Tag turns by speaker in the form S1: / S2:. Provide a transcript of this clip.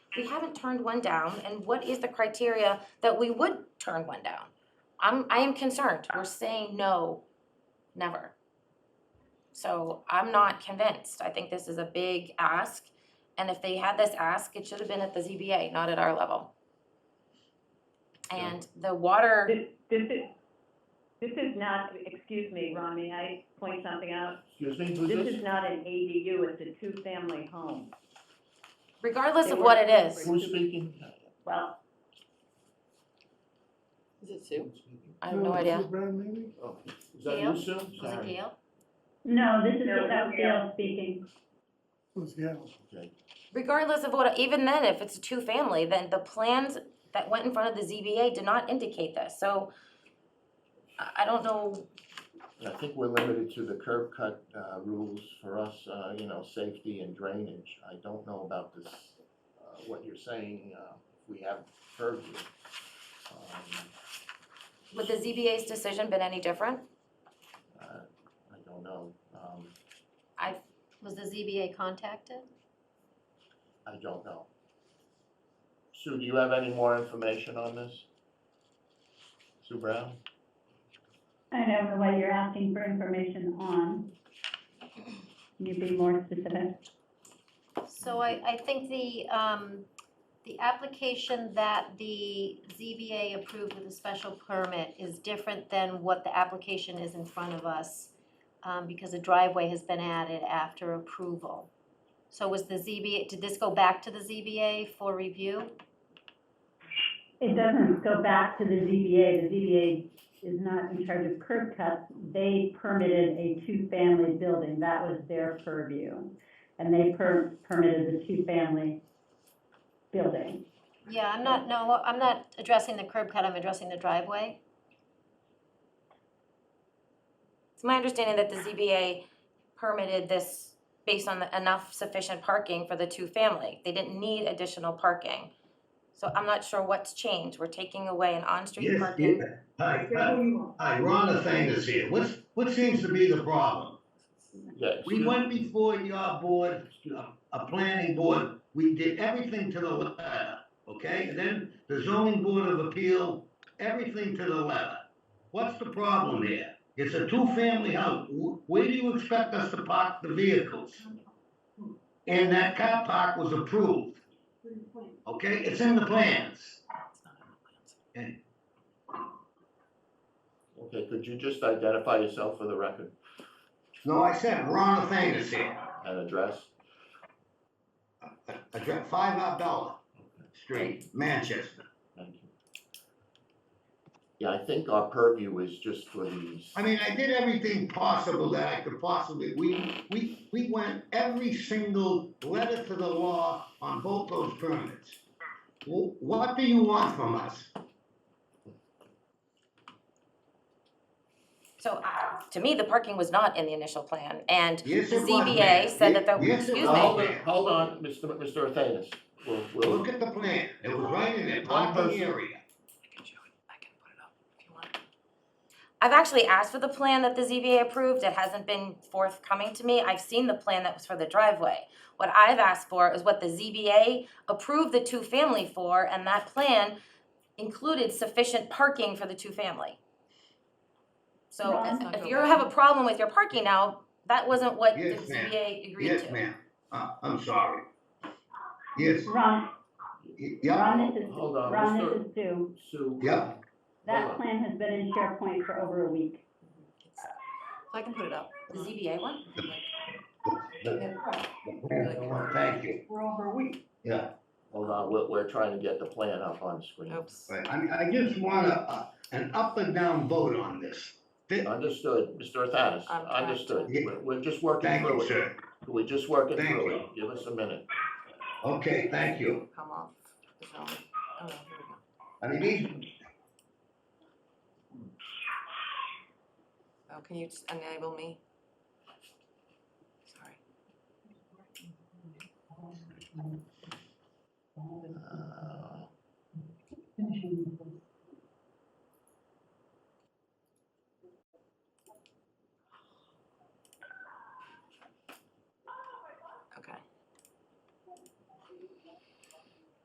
S1: we haven't turned one down, and what is the criteria that we would turn one down? I'm, I am concerned, we're saying no, never. So I'm not convinced, I think this is a big ask, and if they had this ask, it should have been at the ZBA, not at our level. And the water.
S2: This, this is, this is not, excuse me, Ron, may I point something out?
S3: Excuse me, who's
S2: This
S3: this?
S2: is not an ADU, it's a two-family home.
S1: regardless
S2: They
S1: of
S2: were
S1: what it is,
S2: separate.
S3: Who's speaking?
S2: Well,
S4: Is it Sue?
S1: I have no idea.
S3: Oh, is that
S1: Gail?
S3: you, Sue?
S1: Was it
S3: Sorry.
S1: Gail?
S5: No, this is
S2: No,
S5: without
S2: no.
S5: Gail speaking.
S6: Who's Gail?
S3: Okay.
S1: Regardless of what, even then, if it's a two-family, then the plans that went in front of the ZBA did not indicate this, so I, I don't know,
S3: And I think we're limited to the curb cut, uh, rules for us, uh, you know, safety and drainage. I don't know about this, uh, what you're saying, uh, we have purview. Um,
S1: would the ZBA's decision been any different?
S3: uh, I don't know, um,
S7: Was the ZBA contacted?
S3: I don't know. Sue, do you have any more information on this? Sue Brown?
S5: I don't know what you're asking for information on. Can you be more specific?
S7: So I, I think the, um, the application that the ZBA approved with a special permit is different than what the application is in front of us, um, because a driveway has been added after approval. So was the ZBA, did this go back to the ZBA for review?
S5: It doesn't go back to the ZBA. The ZBA is not in charge of curb cuts. They permitted a two-family building. That was their purview. And they per, permitted the two-family building.
S7: Yeah, I'm not, no, I'm not addressing the curb cut, I'm addressing the driveway.
S1: It's my understanding that the ZBA permitted this based on the enough sufficient parking for the two-family, they didn't need additional parking. So I'm not sure what's changed, we're taking away an on-street
S8: Yes,
S1: parking.
S8: yeah. Hi, uh, hi, Ron Athanas here. What's, what seems to be the problem?
S3: Yeah.
S8: We
S3: Sue-
S8: went before your board, uh, a planning board, we did everything to the letter, okay? And then the zoning board of appeal, everything to the letter. What's the problem here? It's a two-family house. Wh- Where do you expect us to park the vehicles? And that car park was approved, okay? It's in the plans.
S3: Okay, could you just identify yourself for the record
S8: No, I said Ron Athanas here.
S3: and address?
S8: Address five Abdallah Street, Manchester.
S3: Thank you. Yeah, I think our purview is just for these.
S8: I mean, I did everything possible that I could possibly, we, we, we went every single letter to the law on both those permits. Wh- What do you want from us?
S1: So, uh, to me, the parking was not in the initial plan, and
S8: Yes,
S1: The
S8: it was,
S1: ZBA
S8: ma'am.
S1: said that the-
S8: Yes, it
S1: excuse
S3: Now,
S1: me.
S8: was,
S3: Hold on, hold on,
S8: ma'am.
S3: Mr. Mr. Athanas. We'll, we'll,
S8: Look at the plan, it was right in there,
S3: One
S8: parking
S3: person.
S8: area.
S1: I've actually asked for the plan that the ZBA approved, it hasn't been forthcoming to me, I've seen the plan that was for the driveway. What I've asked for is what the ZBA approved the two-family for, and that plan included sufficient parking for the two-family. So if,
S5: Ron?
S1: if you have a problem with your parking now, that wasn't what the
S8: Yes, ma'am.
S1: ZBA agreed
S8: Yes,
S1: to.
S8: ma'am, uh, I'm sorry. Yes,
S5: Ron,
S8: y- yeah,
S5: Ron, this is,
S3: Hold on,
S5: Ron,
S3: Mr.
S5: this is Sue.
S3: Sue.
S8: Yeah.
S3: Hold
S5: That
S3: on.
S5: plan has been in SharePoint for over a week.
S4: I can put it up.
S1: The ZBA one?
S8: thank you.
S2: we're over a week.
S8: Yeah.
S3: Hold on, we're, we're trying to get the plan up on screen.
S4: Oops.
S8: Right, I mean, I just want a, a- an up and down vote on this. Thi-
S3: Understood, Mr. Athanas,
S4: I'm trying
S3: understood.
S8: to-
S3: We're, we're just working
S8: Thank
S3: through
S8: you,
S3: it.
S8: sir.
S3: We're just working
S8: Thank
S3: through it.
S8: you.
S3: Give us a minute.
S8: Okay, thank you.
S4: Come off the zone. Oh, here we go.
S8: I mean, these,
S4: Oh, can you just enable me? Sorry.
S3: Uh,